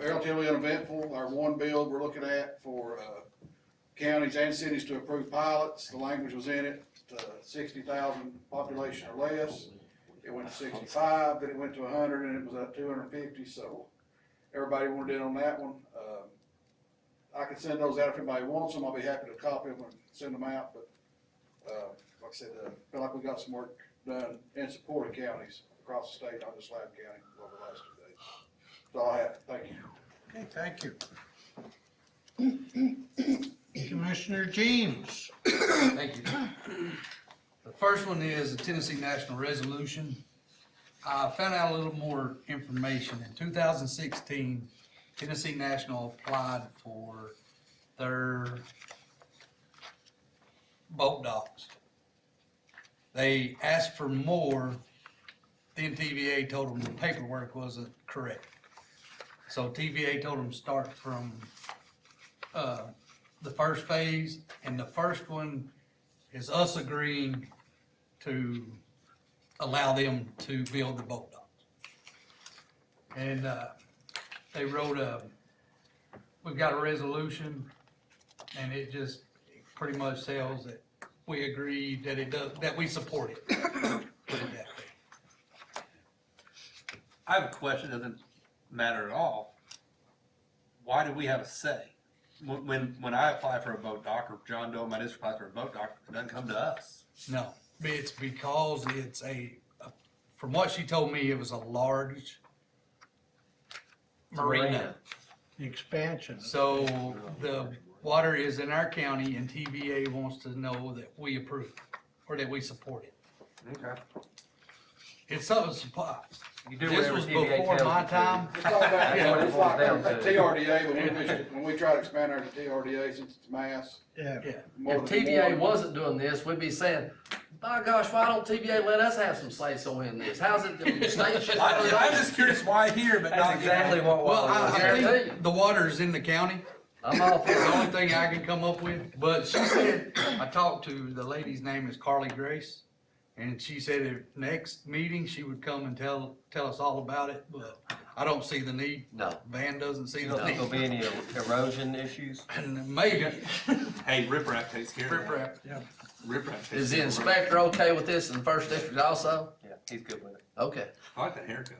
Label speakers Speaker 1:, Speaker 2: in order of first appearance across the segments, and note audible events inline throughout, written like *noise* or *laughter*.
Speaker 1: relatively uneventful. Our one bill we're looking at for, uh, counties and cities to approve pilots, the language was in it, uh, sixty thousand population or less. It went to sixty-five, then it went to hundred, and it was at two hundred and fifty, so everybody wanted in on that one. Um, I can send those out if anybody wants them, I'll be happy to copy them and send them out, but, uh, like I said, uh, feel like we got some work done in support of counties across the state, not just Loudoun County, over the last two days. That's all I have, thank you.
Speaker 2: Okay, thank you. Commissioner James,
Speaker 3: Thank you. The first one is the Tennessee National Resolution. I found out a little more information. In two thousand sixteen, Tennessee National applied for their boat docks. They asked for more, then TVA told them the paperwork wasn't correct. So TVA told them start from, uh, the first phase, and the first one is us agreeing to allow them to build the boat dock. And, uh, they wrote a, we've got a resolution, and it just pretty much tells that we agree that it does, that we support it. Put it that way.
Speaker 4: I have a question, that doesn't matter at all. Why do we have a say? When, when, when I apply for a boat dock, or John Doe, my district applies for a boat dock, it doesn't come to us.
Speaker 3: No, it's because it's a, from what she told me, it was a large marina.
Speaker 2: expansion.
Speaker 3: So the water is in our county and TVA wants to know that we approve or that we support it.
Speaker 4: Okay.
Speaker 3: It's something supply.
Speaker 5: You do
Speaker 3: This
Speaker 5: whatever
Speaker 3: was
Speaker 5: TVA
Speaker 3: before
Speaker 5: tells
Speaker 3: my
Speaker 5: you to.
Speaker 3: time.
Speaker 1: It's all about,
Speaker 5: That's what it
Speaker 1: it's like,
Speaker 5: boils down
Speaker 1: uh,
Speaker 5: to.
Speaker 1: TRDA, when we, wish- when we try to expand our TRDA, since it's mass.
Speaker 2: Yeah,
Speaker 3: Yeah.
Speaker 1: more
Speaker 5: If
Speaker 1: than
Speaker 5: TVA
Speaker 1: one-
Speaker 5: wasn't doing this, we'd be saying, by gosh, why don't TVA let us have some say-so in this? How's it, the *laughs* state should.
Speaker 4: I, I'm just curious why here, but not.
Speaker 5: That's exactly what
Speaker 3: Well,
Speaker 5: Wally
Speaker 3: I,
Speaker 5: was
Speaker 3: I
Speaker 5: there too.
Speaker 3: think the water is in the county.
Speaker 5: I'm all for
Speaker 3: It's the only
Speaker 5: it.
Speaker 3: thing I can come up with. But she said, I talked to, the lady's name is Carly Grace. And she said at next meeting, she would come and tell, tell us all about it, but I don't see the need.
Speaker 6: No.
Speaker 3: Van doesn't see
Speaker 6: You
Speaker 3: the
Speaker 6: don't think there'll
Speaker 3: need.
Speaker 6: be any er, erosion issues?
Speaker 3: And *laughs* maybe,
Speaker 5: *laughs*
Speaker 4: Hey, riprap takes care of that.
Speaker 3: riprap.
Speaker 4: Riprap. takes
Speaker 5: Is the
Speaker 4: care of riprap.
Speaker 5: inspector okay with this in the first district also?
Speaker 6: Yeah, he's good with it.
Speaker 5: Okay.
Speaker 4: I like that haircut.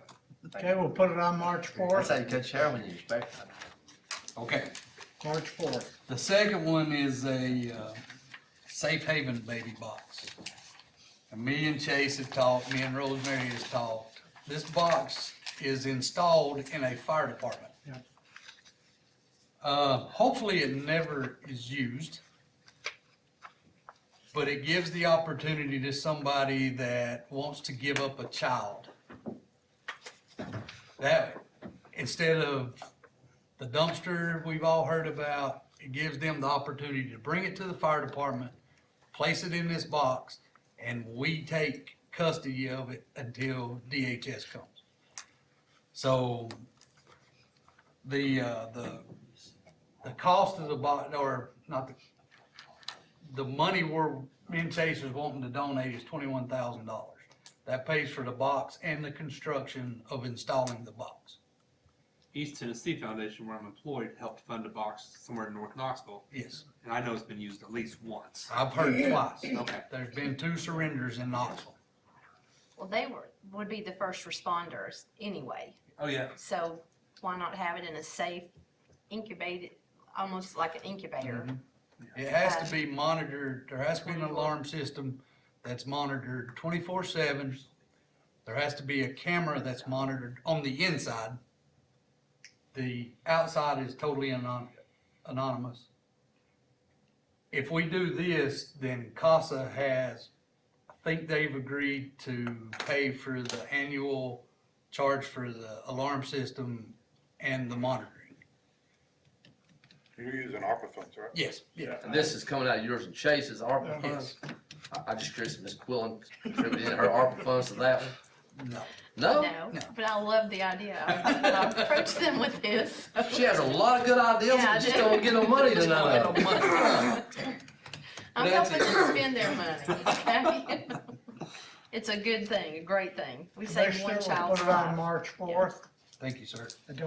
Speaker 2: okay, we'll put it on March
Speaker 6: That's
Speaker 2: fourth,
Speaker 6: how you cut your hair when you inspect.
Speaker 3: Okay.
Speaker 2: March fourth.
Speaker 3: The second one is a, uh, safe haven baby box. And me and Chase have talked, me and Rosemary has talked. This box is installed in a fire department.
Speaker 2: Yeah.
Speaker 3: Uh, hopefully it never is used. But it gives the opportunity to somebody that wants to give up a child. That, instead of the dumpster we've all heard about, it gives them the opportunity to bring it to the fire department, place it in this box, and we take custody of it until DHS comes. So the, uh, the, the cost of the box, or not the, the money we're, me and Chase is wanting to donate is twenty-one thousand dollars. That pays for the box and the construction of installing the box.
Speaker 4: East Tennessee Foundation, where I'm employed, helped fund a box somewhere in North Knoxville,
Speaker 3: Yes,
Speaker 4: and I know it's been used at least once.
Speaker 3: I've heard twice.
Speaker 4: Okay.
Speaker 3: There's been two surrenders in Knoxville.
Speaker 7: Well, they were, would be the first responders anyway,
Speaker 4: Oh, yeah.
Speaker 7: so why not have it in a safe incubated, almost like an incubator?
Speaker 3: It has to be monitored, there has to be an alarm system that's monitored twenty-four seven. There has to be a camera that's monitored on the inside. The outside is totally anon- anonymous. If we do this, then CASA has, I think they've agreed to pay for the annual charge for the alarm system and the monitoring.
Speaker 8: You're using ARPA funds, right?
Speaker 3: Yes, yeah,
Speaker 5: And this is coming out of yours and Chase's ARPA funds.
Speaker 3: yes,
Speaker 5: I, I just curious if Ms. Quillen contributed her ARPA funds to that one.
Speaker 3: no.
Speaker 5: Oh, No?
Speaker 7: No,
Speaker 3: No.
Speaker 7: but I love the idea. I approach them with this.
Speaker 5: She has a lot of good ideas,
Speaker 7: Yeah, I
Speaker 5: but just
Speaker 7: do.
Speaker 5: don't get
Speaker 3: *laughs*
Speaker 5: no money to none of
Speaker 3: Don't
Speaker 5: them.
Speaker 3: get no money.
Speaker 7: I'm
Speaker 3: That's
Speaker 7: helping them spend their money, okay? It's a good thing, a great thing. We save
Speaker 2: Commissioner,
Speaker 7: one
Speaker 2: we'll
Speaker 7: child's
Speaker 2: put it on
Speaker 7: life.
Speaker 2: March fourth.
Speaker 3: Thank you, sir.
Speaker 2: I don't